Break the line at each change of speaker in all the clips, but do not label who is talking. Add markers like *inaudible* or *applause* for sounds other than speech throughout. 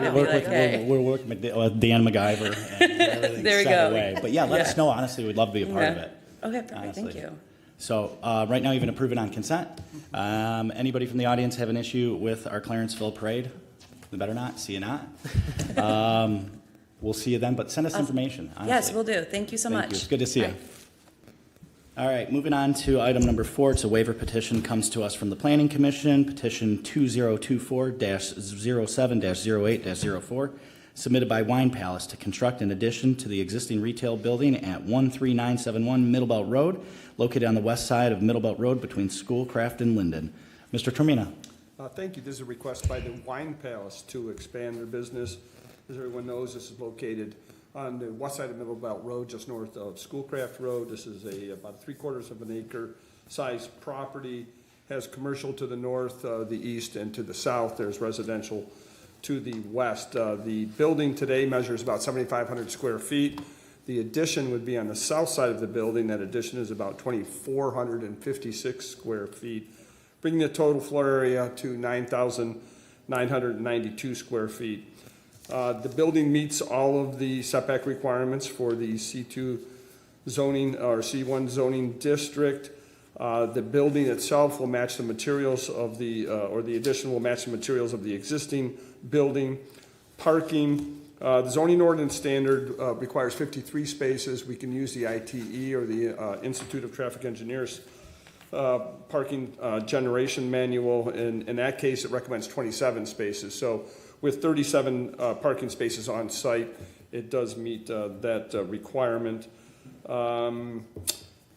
We're
It'd be
working
like,
with,
hey.
we're, we're working with uh, Dan MacGyver. And everything's
*laughs* There we go.
set Away. But yeah, let us
Yeah.
know. Honestly, we'd love to be a part of
Yeah.
it.
Okay, perfect, thank
honestly.
you.
So uh, right now, you've been approved on consent. Um, anybody from the audience have an issue with our Clarenceville parade? The better not. See you not.
*laughs*
um, we'll see you then. But send us information. Honestly.
Yes, we will do. Thank you so
Thank
much.
you. It's good to see you.
Bye.
All right, moving on to item number four, it's a waiver petition comes to us from the Planning Commission, petition 2024-07-08-04, submitted by Wine Palace to construct an addition to the existing retail building at 13971 Middlebelt Road, located on the west side of Middlebelt Road between Schoolcraft and Linden. Mr. Termina?
Uh, Thank you. This is a request by the Wine Palace to expand their business. As everyone knows, this is located on the west side of Middle Belt Road, just north of Schoolcraft Road. This is a, about three quarters of an acre sized property, has commercial to the north, uh, the east, and to the south. There's residential to the west. Uh, The building today measures about 7,500 square feet. The addition would be on the south side of the building. That addition is about 2,456 square feet, bringing the total floor area to 9,992 square feet. Uh, The building meets all of the setback requirements for the C2 zoning, or C1 zoning district. Uh, The building itself will match the materials of the, uh, or the addition will match the materials of the existing building. Parking, uh, the zoning ordinance standard uh, requires 53 spaces. We can use the ITE or the uh, Institute of Traffic Engineers uh, parking uh, generation manual, and in that case, it recommends 27 spaces. So with 37 uh, parking spaces on site, it does meet uh, that uh, requirement. Um,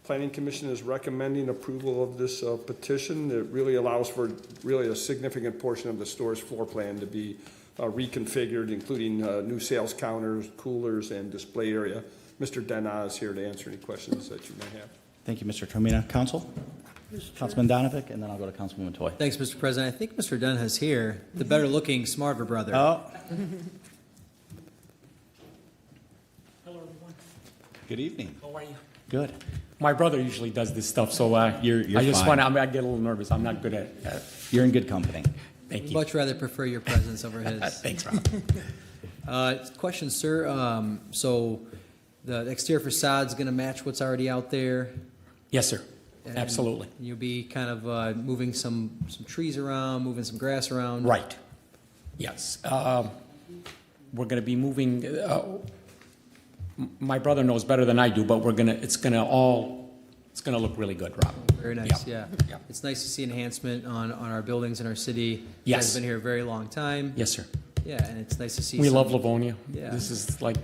Planning Commission is recommending approval of this uh, petition. It really allows for really a significant portion of the store's floor plan to be uh, reconfigured, including uh, new sales counters, coolers, and display area. Mr. Dena is here to answer any questions that you may have.
Thank you, Mr. Termina. Council? Councilman Donavick, and then I'll go to Councilwoman Toy.
Thanks, Mr. President. I think Mr. Dunn is here, the
Mm-hmm.
better-looking, smarter brother.
Oh. Hello, everyone. Good evening.
How are you?
Good.
My brother usually does this stuff, so uh,
You're- you're
I just
fine.
want to, I get a little nervous. I'm not good at, at
You're in good company.
thank you.
Much rather prefer your presence over
*laughs*
his.
Thanks, Rob.
Uh, Question, sir. Um, So the exterior facade's going to match what's already out there?
Yes, sir.
and
Absolutely.
You'll be kind of uh, moving some, some trees around, moving some grass around?
Right. Yes. Um, We're going to be moving, uh, m- my brother knows better than I do, but we're going to, it's going to all, it's going to look really good, Rob.
Very nice, yeah.
Yeah.
It's nice to see enhancement on, on our buildings in our city. You guys
Yes.
have been here a very long time.
Yes, sir.
Yeah, and it's nice to see.
We
some-
love Livonia.
Yeah.
This is like,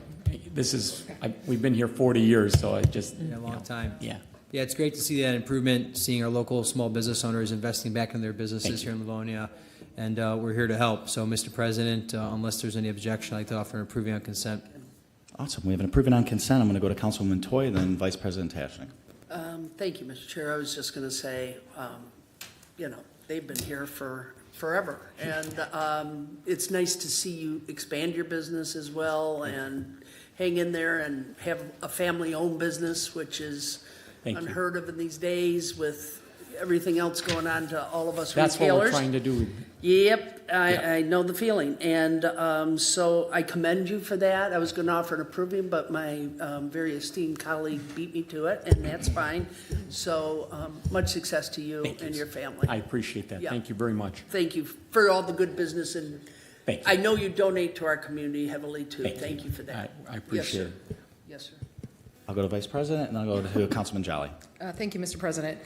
this is, I- we've been here 40 years, so I just.
Yeah, a long time.
Yeah.
Yeah, it's great to see that improvement, seeing our local small business owners investing back in their businesses here in Livonia, and uh, we're here to help. So, Mr. President, uh, unless there's any objection, I'd like to offer an approving on consent.
Awesome. We have an approving on consent. I'm going to go to Councilwoman Toy, then Vice President Tashnik.
Um, Thank you, Mr. Chair. I was just going to say, um, you know, they've been here for forever. And um, it's nice to see you expand your business as well and hang in there and have a family-owned business, which is
Thank you.
unheard of in these days with everything else going on to all of us retailers.
That's what we're trying to do.
Yep,
Yeah.
I, I know the feeling, and um, so I commend you for that. I was going to offer an approving, but my um, very esteemed colleague beat me to it, and that's fine. So um, much success to you
Thank you,
and your
sir.
family.
I appreciate that.
Yeah.
Thank you very much.
Thank you for all the good business, and
Thank you.
I know you donate to our community heavily too.
Thank you.
Thank you for that.
I- I
Yes,
appreciate
sir.
it.
Yes, sir.
I'll go to Vice President, and I'll go to Councilman Jolly.
Uh, Thank you, Mr. President.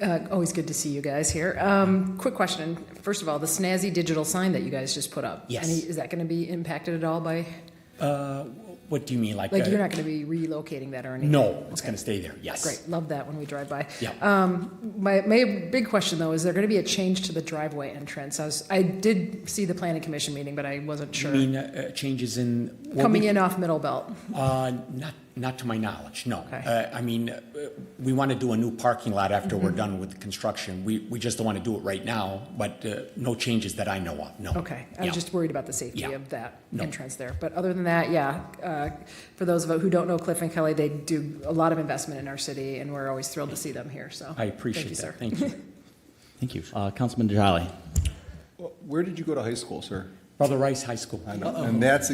Uh, Always good to see you guys here. Um, Quick question. First of all, the snazzy digital sign that you guys just put up.
Yes.
any- Is that going to be impacted at all by,
Uh, What do you mean, like?
like,
uh,
you're not going to be relocating that or anything?
No, it's going to stay there, yes.
Great, love that when we drive by.
Yeah.
Um, My, my big question, though, is there going to be a change to the driveway entrance? I was, I did see the planning commission meeting, but I wasn't
You
sure.
mean uh, uh, changes in? what
Coming
we-
in off Middle Belt.
Uh, Not, not to my knowledge, no.
Okay.
Uh, I mean, uh, we want to do a new parking lot after
Mm-hmm.
we're done with the construction. We, we just don't want to do it right now, but uh, no changes that I know of, no.
Okay,
Yeah.
I was just worried about the safety
Yeah.
of that
No.
entrance there. But other than that, yeah, uh, for those of who don't know Cliff and Kelly, they do a lot of investment in our city, and we're always thrilled to see them here, so.
I appreciate that,
*laughs*
thank you.
Thank you. Uh, Councilman Jolly.
Well, Where did you go to high school, sir?
Brother Rice High School.
I know. And that's